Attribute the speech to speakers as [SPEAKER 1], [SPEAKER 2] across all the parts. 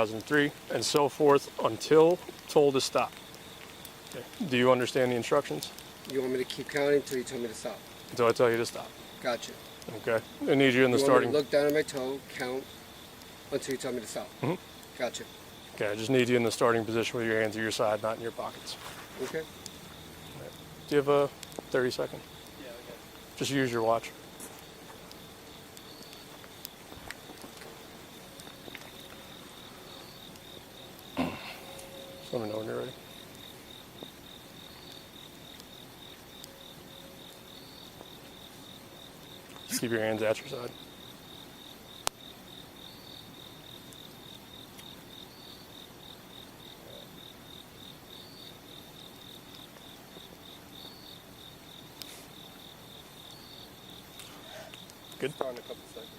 [SPEAKER 1] 2003, and so forth until told to stop. Okay. Do you understand the instructions?
[SPEAKER 2] You want me to keep counting until you tell me to stop?
[SPEAKER 1] Until I tell you to stop.
[SPEAKER 2] Gotcha.
[SPEAKER 1] Okay. I need you in the
[SPEAKER 2] you
[SPEAKER 1] starting.
[SPEAKER 2] want me to look down at my toe, count until you tell me to stop? Gotcha.
[SPEAKER 1] Okay. I just need you in the starting position with your hands at your side, not in your pockets.
[SPEAKER 2] Okay.
[SPEAKER 1] Do you have a 30 second?
[SPEAKER 3] Yeah, okay.
[SPEAKER 1] Just use your watch. Just let me know when you're ready. Just keep your hands at your side. Good.
[SPEAKER 2] Start in a couple seconds.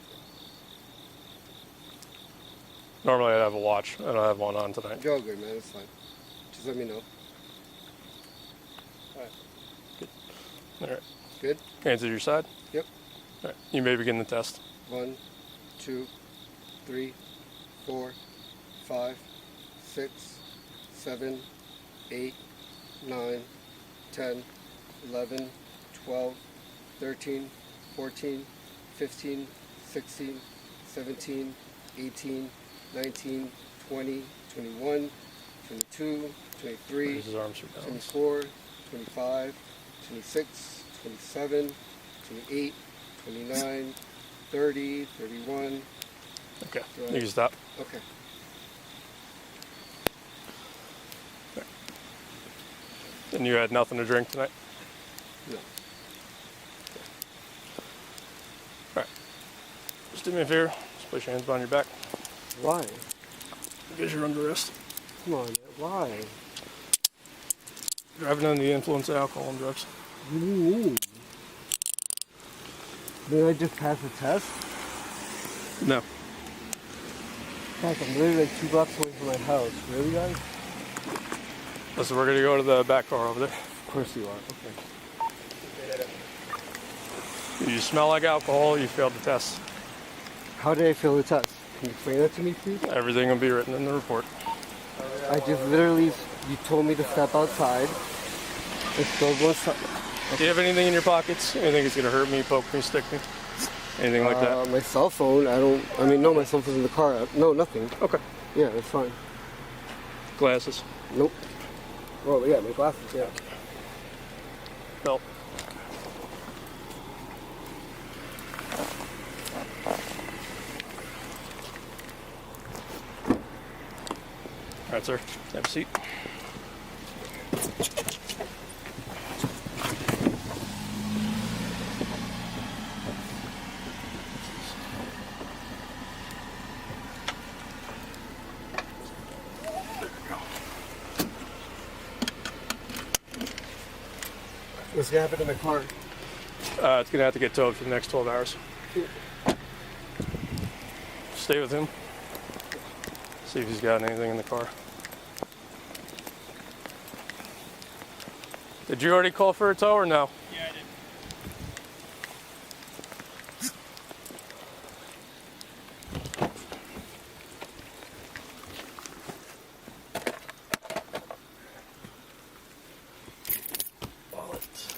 [SPEAKER 1] Normally I'd have a watch. I don't have one on tonight.
[SPEAKER 2] You're all good, man. It's fine. Just let me know. Alright.
[SPEAKER 1] All right.
[SPEAKER 2] Good?
[SPEAKER 1] Hands at your side.
[SPEAKER 2] Yep.
[SPEAKER 1] All right. You may begin the test.
[SPEAKER 2] One, two, three, four, five, six, seven, eight, nine, ten, eleven, twelve, thirteen, fourteen, fifteen, sixteen, seventeen, eighteen, nineteen, twenty, twenty-one, twenty-two, twenty-three,
[SPEAKER 1] Raise his arms for balance.
[SPEAKER 2] 24, 25, 26, 27, 28, 29, 30, 31.
[SPEAKER 1] Okay. You can stop.
[SPEAKER 2] Okay.
[SPEAKER 1] And you had nothing to drink tonight?
[SPEAKER 2] No.
[SPEAKER 1] All right. Just do me a favor. Just place your hands behind your back.
[SPEAKER 2] Why?
[SPEAKER 1] Because you're under arrest.
[SPEAKER 2] Come on. Why?
[SPEAKER 1] Driving under the influence of alcohol and drugs.
[SPEAKER 2] What do you mean? Did I just pass the test?
[SPEAKER 1] No.
[SPEAKER 2] Heck, I'm literally like two blocks away from my house. Really, guys?
[SPEAKER 1] Listen, we're going to go to the back car over there.
[SPEAKER 2] Of course you are. Okay.
[SPEAKER 1] You smell like alcohol. You failed the test.
[SPEAKER 2] How did I fail the test? Can you explain that to me, please?
[SPEAKER 1] Everything will be written in the report.
[SPEAKER 2] I just literally, you told me to step outside. It's still going so-
[SPEAKER 1] Do you have anything in your pockets? Anything that's going to hurt me, poke me, stick me? Anything like
[SPEAKER 2] Uh, my cell phone. I don't. I mean, no, my cell phone's in the car. I- No, nothing.
[SPEAKER 1] that? Okay.
[SPEAKER 2] Yeah, that's fine.
[SPEAKER 1] Glasses,
[SPEAKER 2] Nope. Well, yeah, my glasses. Yeah.
[SPEAKER 1] belt. All right, sir. Have a seat.
[SPEAKER 2] What's gonna happen to my car?
[SPEAKER 1] Uh, it's gonna have to get towed for the next 12 hours. Stay with him. See if he's got anything in the car. Did you already call for a tow or no?
[SPEAKER 3] Yeah, I did.
[SPEAKER 1] Wallet.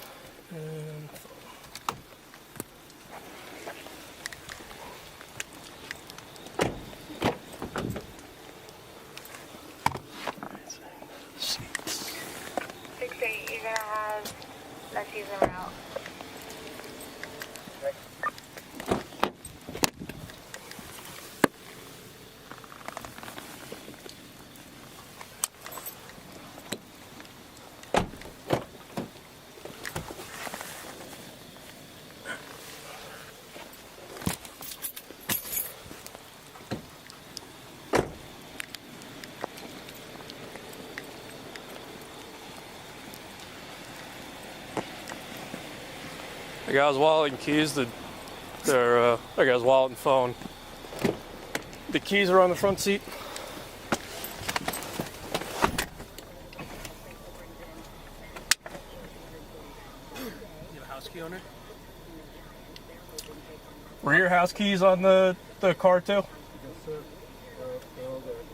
[SPEAKER 4] Six eight, you're gonna have, let's use the route.
[SPEAKER 1] I got his wallet and keys. The, their, uh, I got his wallet and phone. The keys are on the front seat.
[SPEAKER 3] You have a house key owner?
[SPEAKER 1] Were your house keys on the, the car too?
[SPEAKER 2] Yes, sir.